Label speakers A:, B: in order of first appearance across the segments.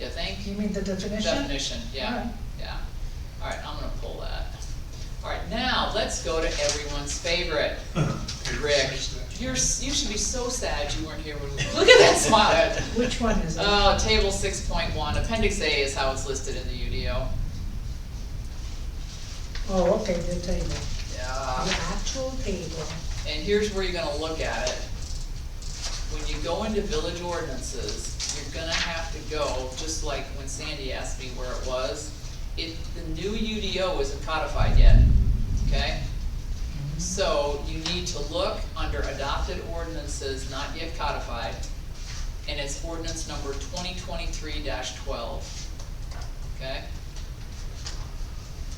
A: you think?
B: You mean the definition?
A: Definition, yeah,
B: Alright.
A: yeah. All right, I'm gonna pull that. All right, now, let's go to everyone's favorite. Rick, you're, s- you should be so sad you weren't here when we, look at that smile.
B: Which one is it?
A: Uh, table six point one, appendix A is how it's listed in the UDO.
B: Oh, okay, the table. The
A: Yeah.
B: actual table.
A: And here's where you're gonna look at it. When you go into village ordinances, you're gonna have to go, just like when Sandy asked me where it was, it, the new UDO isn't codified yet, okay? So you need to look under adopted ordinances not yet codified, and it's ordinance number twenty twenty-three twelve, okay?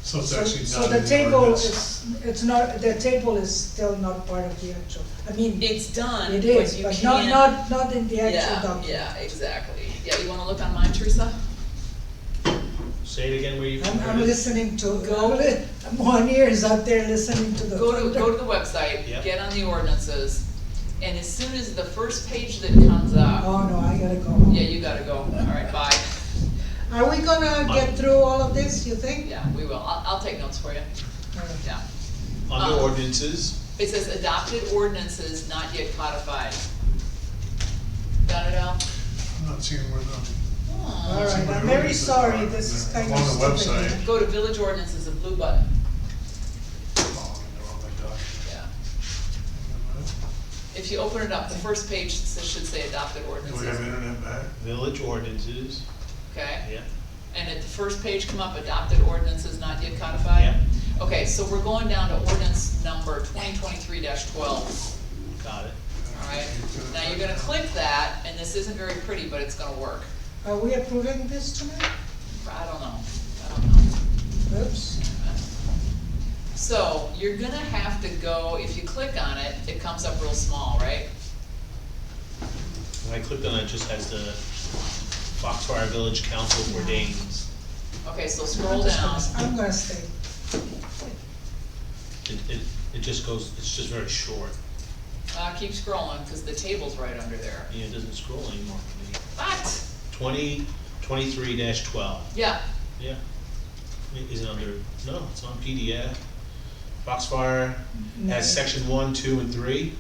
C: So it's
B: So-
C: actually
B: So
C: not
B: the
C: in the
B: table
C: ordinance.
B: is, it's not, the table is still not part of the actual, I mean, it
A: It's done, but you can't.
B: is, but not, not, not in the actual
A: Yeah,
B: document.
A: yeah, exactly. Yeah, you wanna look on mine, Teresa?
D: Say it again where you.
B: I'm, I'm
D: heard it.
B: listening to,
A: Go-
B: I'm one ear is out there listening to the.
A: Go to, go to the website,
D: Yeah.
A: get on the ordinances, and as soon as the first page that comes up,
B: Oh, no, I gotta go home.
A: yeah, you gotta go, alright, bye.
B: Are we gonna get through all of this, you think?
A: Yeah, we will, I'll, I'll take notes for you,
B: All right.
A: yeah.
D: Under
B: Uh-huh.
A: um,
D: ordinances,
A: It says adopted ordinances not yet codified. Got it Al?
C: I'm not seeing where the.
A: Hmm.
B: All right, I'm very sorry, this is kind of
C: On the
B: stupid.
C: website.
A: Go to village ordinances, a blue button,
C: Oh, they're on the document.
A: yeah. If you open it up, the first page s- should say adopted
C: Do we have
A: ordinances,
C: internet back?
D: village ordinances,
A: okay?
D: yeah.
A: And at the first page come up, adopted ordinances not yet codified?
D: Yeah.
A: Okay, so we're going down to ordinance number twenty twenty-three twelve,
D: Got it.
A: alright? Now you're gonna click that, and this isn't very pretty, but it's gonna work.
B: Are we approving this tonight?
A: I don't know, I don't know.
B: Oops.
A: So you're gonna have to go, if you click on it, it comes up real small, right?
D: When I clicked on it, it just has the Foxfire Village Council
B: Uh-huh.
D: ordains.
A: Okay, so scroll
B: I'm just gonna-
A: down,
B: I'm gonna stay.
D: It, it, it just goes, it's just very short.
A: uh, keep scrolling, cause the table's right under there.
D: You know, it doesn't scroll anymore for me.
A: What?
D: Twenty, twenty-three dash twelve,
A: Yeah,
D: yeah. It Is it under, no, it's on PDF. Foxfire
B: No.
D: has section one, two, and three.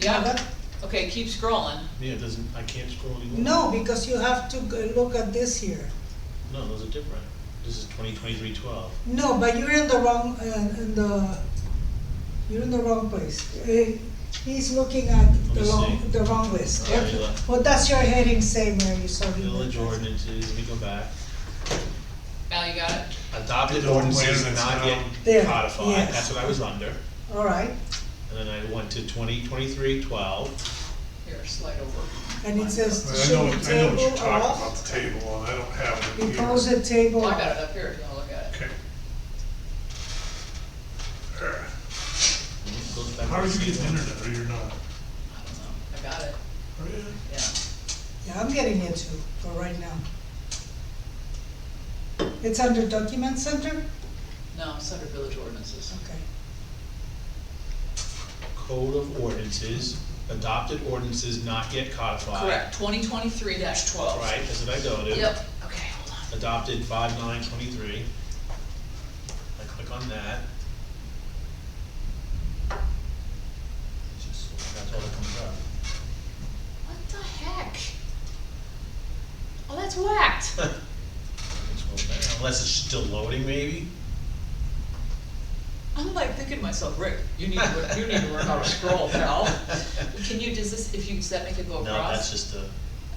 A: yeah,
B: But-
A: okay, keep scrolling.
D: Yeah, it doesn't, I can't scroll anymore.
B: No, because you have to go look at this here.
D: No, those are different. This is twenty twenty-three twelve.
B: No, but you're in the wrong, uh, in the, you're in the wrong place. Uh, He's looking at the
D: Let me
B: wrong,
D: see.
B: the wrong list.
D: Oh, yeah, you are.
B: What does your heading say, Mary, sorry?
D: Village ordinances, let me go back.
A: Al, you got it?
D: Adopted
C: Adopted
D: ordinances
C: ordinances
D: not
C: now.
B: There,
D: yet codified,
B: yes.
D: that's what I was under.
B: All right,
D: And then I went to twenty twenty-three twelve.
A: Here, slide over.
B: and it
C: But
B: says,
C: I know,
B: should
C: what- I know what you're
B: table
C: talking about,
B: off,
C: the table, and I don't have it in here.
B: propose a table
A: Well, I got
B: off.
A: it up here if you wanna look at it.
C: Okay. There. How
D: How
C: did you get internet, or you're not?
A: I don't know, I got it,
C: Are
B: Oh,
C: you?
A: yeah.
B: Yeah, I'm getting it too, for right now. It's under document center?
A: No, it's under village ordinances.
B: Okay.
D: Code of ordinances, adopted ordinances not yet codified.
A: Correct, twenty twenty-three twelve.
D: Right, that's what I go to.
A: Yep, okay, hold on.
D: Adopted five nine twenty-three. I click on that. Just, that's all that comes up.
A: What the heck? Oh, that's whacked.
D: Unless it's still loading, maybe?
A: I'm like thinking to myself, Rick, you need to, you need to learn how to scroll, pal. Can you, does this, if you, does that make it go
D: No,
A: across?
D: that's just a,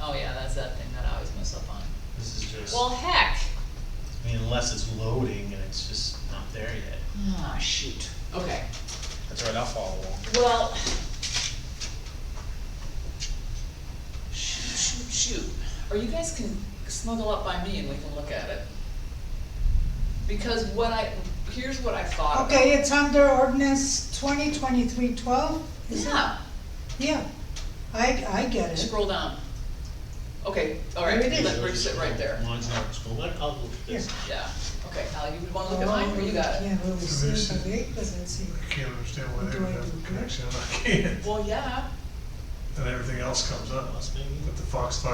A: Oh, yeah, that's that thing that I always mess up on.
D: this is just,
A: Well,
D: I
A: heck.
D: mean, unless it's loading and it's just not there yet.
A: Ah, shoot. Okay,
D: That's all right, I'll follow along.
A: well. Shoot, shoot, shoot. Or you guys can snuggle up by me and we can look at it. Because what I, here's what I thought about.
B: Okay, it's under ordinance twenty twenty-three twelve, is it?
A: Yeah.
B: Yeah, I, I get it.
A: Scroll down. Okay, all right,
B: There it is.
A: let Rick sit right there.
D: Mine's not scroll, but I'll look at this.
A: Yeah, okay, Al, you wanna look at mine, or you got it?
B: Oh, Can't really see
C: Let me
B: it, but
C: see.
B: it doesn't see
C: I can't understand why they
B: Do I
C: would have
B: do
C: a connection, and I can't,
A: Well, yeah.
C: and everything else comes up,
D: Unless maybe.
C: but the Foxfire